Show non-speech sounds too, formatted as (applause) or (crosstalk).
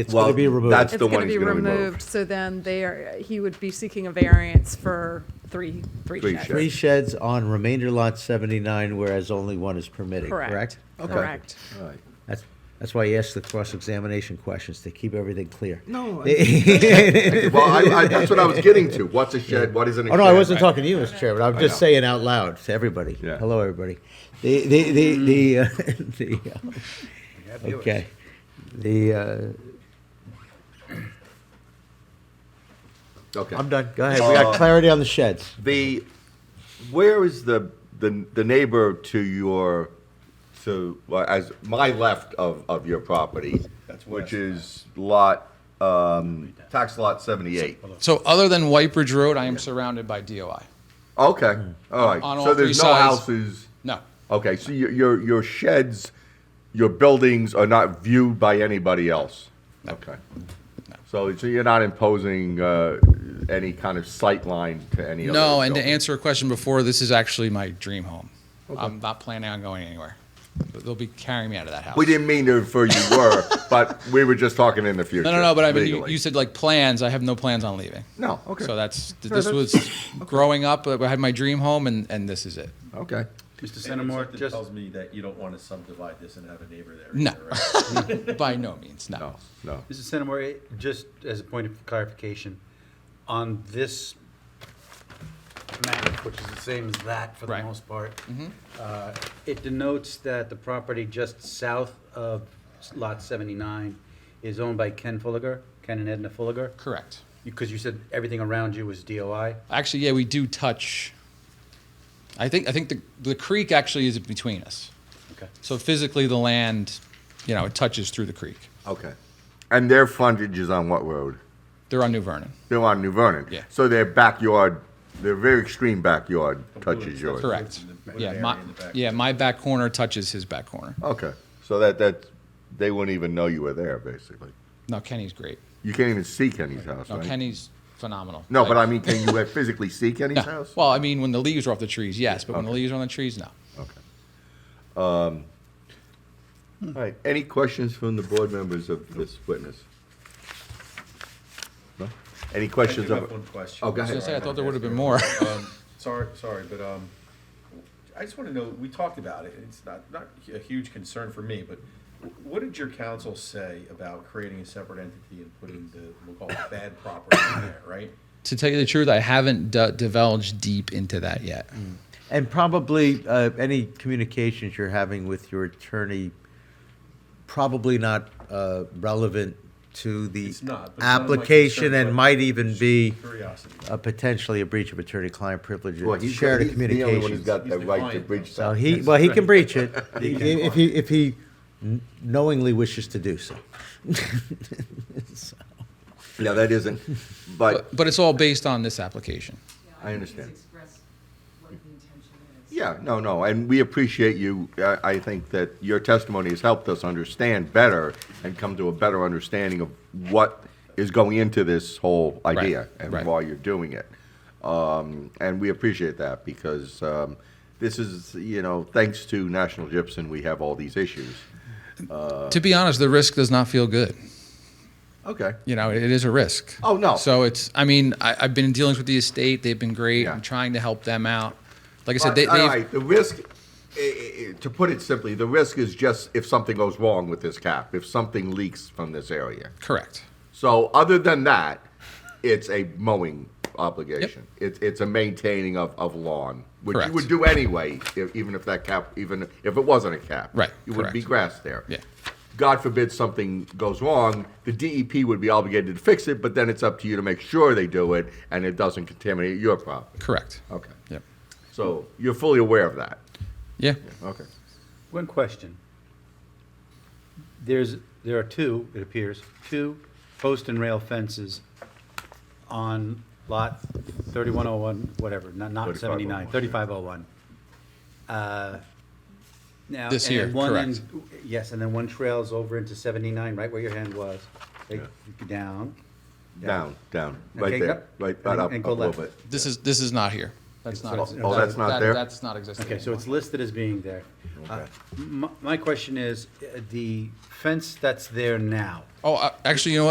It's Well, going to be removed. that's- It's the going one to he's be gonna remove. removed, so then they are, he would be seeking a variance for three, three Three sheds. sheds. Three sheds on remainder lot 79, whereas only one is permitted, correct? Correct, Okay. correct. All right. That's, that's why you ask the cross-examination questions, to keep everything clear. (laughs) No. Well, I, I, that's what I was getting to. What's a shed? What isn't a Oh, shed? no, I wasn't Right. talking to you, Mr. Chairman. I'm I just know. saying out loud to everybody. Yeah. Hello, everybody. The, the, the, the, uh, (laughs) the, uh, okay. The, uh, Okay. I'm done. Go ahead. We got Uh, clarity on the sheds. The, where is the, the, the neighbor to your, to, well, as, my left of, of your property, which is lot, um, tax lot seventy-eight? So other than White Bridge Road, I am surrounded by DOI. Okay, all right. On all So there's three no sides. houses? No, Okay, so your, your, your sheds, your buildings are not viewed by anybody else? Okay. So, so you're not imposing, uh, any kind of sight line to any other no. And to building? answer a question before, this is actually my dream home. I'm not planning on going anywhere. But They'll be carrying me out of that house. We didn't mean to for you (laughs) were, but we were just talking in the future. No, no, no. But I mean, you, legally. you said like plans. I have no plans on leaving. No, okay. So that's No, this that's- was growing up. I had my dream home, and and this is it. Okay. Mr. Centimore, Centimore just- tells me that you don't want to subdivide this and have a neighbor there. No. either, (laughs) right? By no means, no. No, no. Mrs. Centimore, it- just as a point of clarification, on this map, which is the same as that for the Right. most part, uh, it denotes that the property just south of Lot 79 is owned by Ken Fulliger, Ken and Edna Fulliger, Correct. because you said everything around you was DOI. Actually, yeah, we do touch. I think I think the the creek actually is between us. Okay. So physically, the land, you know, it touches through the creek. Okay. And their frontage is on what road? They're on New Vernon. They're on New Vernon. Yeah. So their backyard, their very extreme backyard touches yours. Correct. the- with Yeah, an my, area in the back. yeah, my back corner touches his back corner. Okay. So that, that, they wouldn't even know you were there, basically. No, Kenny's great. You can't even see Kenny's house, No, right? Kenny's phenomenal. No, but I Like, mean, can you uh, physically see Kenny's no. house? Well, I mean, when the leaves are off the trees, yes, but when the Okay. leaves are on the trees, no. Okay. Um, All right, any questions from the board members of this witness? No? Any I do questions have of, one question. Oh, go I ahead. was gonna say, I Sorry, thought there would have been more. Um, Sorry, sorry, but um, I just want to know, we talked about it, it's not, not a huge concern for me, but what did your council say about creating a separate entity and putting the, we'll call it bad property in there, right? to tell you the truth, I haven't d- divulged deep into that yet. Mm. And probably uh, any communications you're having with your attorney, probably not uh, relevant to the It's not, but it's not my application concern, and but might even be Curiosity. uh, potentially a breach of attorney-client privilege. Well, It's he's shared he's the only one who's communications. got He's the the right to client, bridge So that. he, well, he can breach it if he, if he kn- knowingly wishes to do so. No, that isn't, but But, but it's all based on this application. I think he's understand. expressed what the intention is. Yeah, no, no, and we appreciate you. I, I think that your testimony has helped us understand better and come to a better understanding of what is going into this whole idea and right. why you're doing it. Um, and we appreciate that because um, this is, you know, thanks to National Gypsum, we have all these issues. to be honest, the risk does not feel good. Okay. You know, it is a risk. Oh, no. So it's. I mean, I, I've been in dealings with the estate. They've been great. Yeah. I'm trying to help them out. Like I All said, they, they've. right, the risk, i- i- i- to put it simply, the risk is just if something goes wrong with this cap, if something leaks from this area. Correct. So other than that, it's a mowing obligation. It's it's a maintaining of, of lawn, which you Correct. would do anyway, if, even if that cap, even if it wasn't a cap. Right, It would be correct. grass there. Yeah. God forbid something goes wrong, the DEP would be obligated to fix it, but then it's up to you to make sure they do it and it doesn't contaminate your property. Correct. Okay. Yep. So you're fully aware of that. Yeah. Okay. One question. There's, there are two, it appears, two post and rail fences on lot 3101, whatever, not not 79, 3501. Uh, Now, This and here, then one correct. end- Yes, and then one trails over into 79, right where your hand was, Like, down. Down, down, right Okay, there, yep. right, right And- up, and up go a little left. bit. This is this is not here. That's So not. it's- exi- oh, that- that's not that- there? That's not existing. Okay, so anymore. it's listed as being there. Uh, m- My question is, uh, the fence that's there now, Oh, uh, actually, you know what?